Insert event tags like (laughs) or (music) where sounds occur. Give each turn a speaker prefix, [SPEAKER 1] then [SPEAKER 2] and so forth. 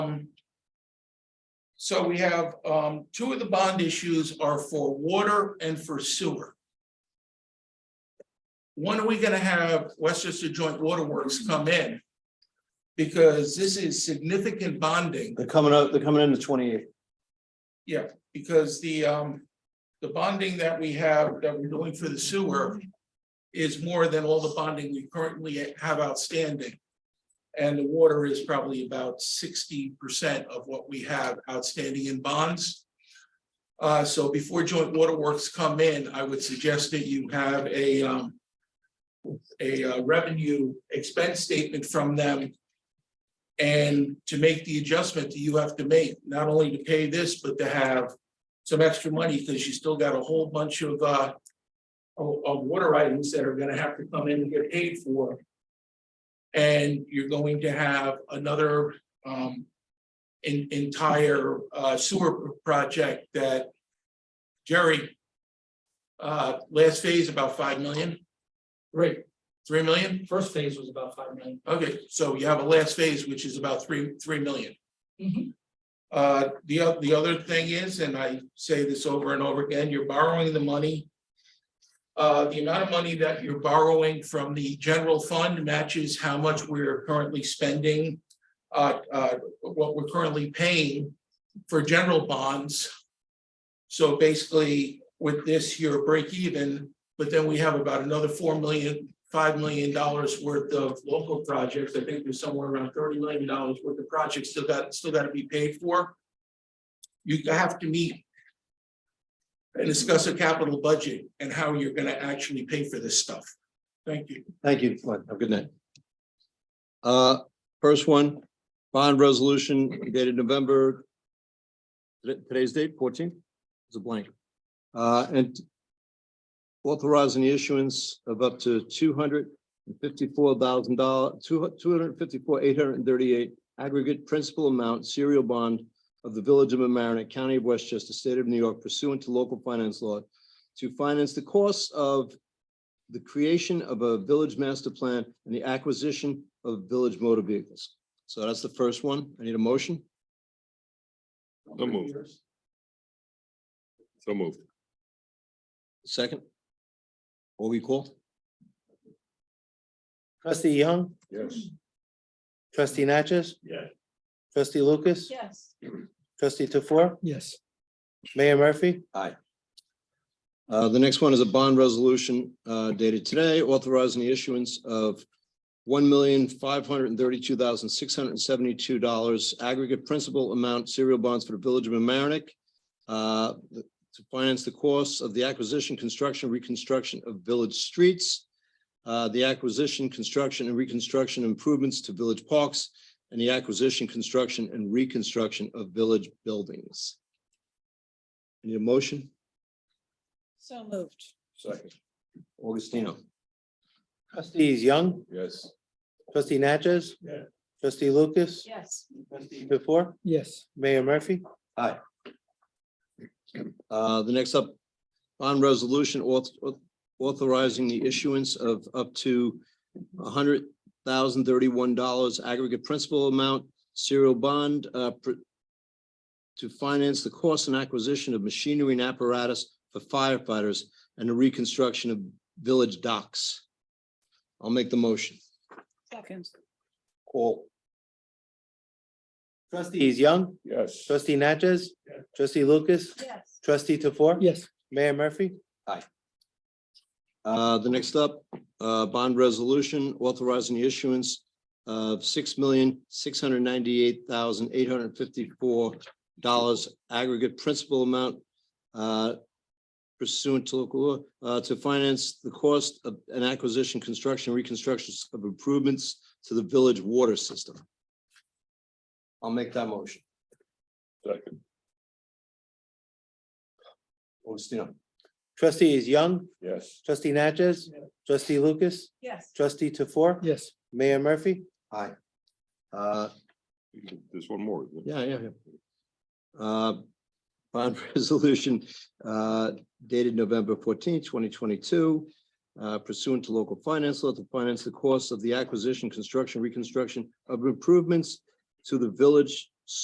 [SPEAKER 1] Um, So we have, um, two of the bond issues are for water and for sewer. When are we gonna have Westchester Joint Waterworks come in? Because this is significant bonding,
[SPEAKER 2] They're coming up, they're coming in the twenty eighth.
[SPEAKER 1] because the, um, the bonding that we have, that we're doing for the sewer is more than all the bonding we currently have outstanding. And the water is probably about sixty percent of what we have outstanding in bonds. Uh, so before joint waterworks come in, I would suggest that you have a, um, a uh, revenue expense statement from them. And to make the adjustment that you have to make, not only to pay this, but to have some extra money, because you still got a whole bunch of, uh, of, of water items that are gonna have to come in and get paid for. And you're going to have another, um, en- entire uh, sewer project that Jerry, uh, last phase about five million,
[SPEAKER 3] Right,
[SPEAKER 1] three million?
[SPEAKER 3] first phase was about five million.
[SPEAKER 1] Okay, so you have a last phase, which is about three, three million.
[SPEAKER 3] Mhm.
[SPEAKER 1] Uh, the, oth- the other thing is, and I say this over and over again, you're borrowing the money. Uh, the amount of money that you're borrowing from the general fund matches how much we're currently spending. Uh, uh, what we're currently paying for general bonds. So basically, with this, you're break even, but then we have about another four million five million dollars worth of local projects. I think there's somewhere around thirty million dollars worth of projects still got, still got to be paid for. You have to meet and discuss a capital budget and how you're gonna actually pay for this stuff. Thank you.
[SPEAKER 2] Thank you, Glenn. Have a good night. Uh, first one, bond resolution dated November. today- Today's date, fourteen, it's a blank. Uh, and authorizing the issuance of up to two hundred and fifty-four thousand dollar, two, two hundred and fifty-four, eight hundred and thirty-eight aggregate principal amount serial bond of the Village of Mamaroneck, County of Westchester, State of New York pursuant to local finance law to finance the costs of the creation of a village master plan and the acquisition of village motor vehicles. So that's the first one. I need a motion.
[SPEAKER 4] So moved. So moved.
[SPEAKER 2] Second. What we call?
[SPEAKER 5] Trustee Young,
[SPEAKER 4] Yes.
[SPEAKER 5] trustee Natchez,
[SPEAKER 4] Yeah.
[SPEAKER 5] trustee Lucas,
[SPEAKER 6] Yes,
[SPEAKER 5] trustee Tofor,
[SPEAKER 3] Yes.
[SPEAKER 5] Mayor Murphy,
[SPEAKER 2] Uh, the next one is a bond resolution, uh, dated today authorizing the issuance of one million, five hundred and thirty-two thousand, six hundred and seventy-two dollars aggregate principal amount serial bonds for the Village of Amerenik uh, to finance the costs of the acquisition, construction, reconstruction of village streets, uh, the acquisition, construction and reconstruction improvements to village parks, and the acquisition, construction and reconstruction of village buildings. Need a motion?
[SPEAKER 6] so moved.
[SPEAKER 4] Second.
[SPEAKER 2] Augustino.
[SPEAKER 5] trustees Young,
[SPEAKER 4] Yes.
[SPEAKER 5] trustee Natchez.
[SPEAKER 4] Yeah.
[SPEAKER 5] Trustee Lucas,
[SPEAKER 6] Yes,
[SPEAKER 5] trustee Tofor,
[SPEAKER 3] Yes.
[SPEAKER 5] Mayor Murphy,
[SPEAKER 2] Uh, the next up, bond resolution auth- auth- authorizing the issuance of up to hundred thousand thirty-one dollars aggregate principal amount serial bond uh, pr- to finance the cost and acquisition of machinery and apparatus for firefighters and the reconstruction of village docks. I'll make the motion.
[SPEAKER 6] second,
[SPEAKER 2] Call.
[SPEAKER 5] trustees Young,
[SPEAKER 4] Yes.
[SPEAKER 5] trustee Natchez,
[SPEAKER 4] Yeah.
[SPEAKER 5] trustee Lucas,
[SPEAKER 6] yes,
[SPEAKER 5] trustee Tofor,
[SPEAKER 3] Yes.
[SPEAKER 5] Mayor Murphy,
[SPEAKER 2] Uh, the next up, uh, bond resolution authorizing the issuance of six million, six hundred ninety-eight thousand, eight hundred fifty-four dollars aggregate principal amount uh, pursuant to local law, uh, to finance the cost of an acquisition, construction, reconstruction of improvements to the village water system. I'll make that motion.
[SPEAKER 4] Second.
[SPEAKER 2] Augustino.
[SPEAKER 5] trustees Young,
[SPEAKER 4] Yes.
[SPEAKER 5] trustee Natchez,
[SPEAKER 4] Yeah.
[SPEAKER 5] trustee Lucas,
[SPEAKER 6] yes,
[SPEAKER 5] trustee Tofor,
[SPEAKER 3] Yes.
[SPEAKER 5] Mayor Murphy,
[SPEAKER 2] Uh,
[SPEAKER 4] There's one more. isn't there?
[SPEAKER 2] Yeah, yeah, yeah. Uh, Bond (laughs) resolution uh, dated November 14, twenty twenty-two. uh, Pursuant to local finance law to finance the cost of the acquisition, construction, reconstruction of improvements to the village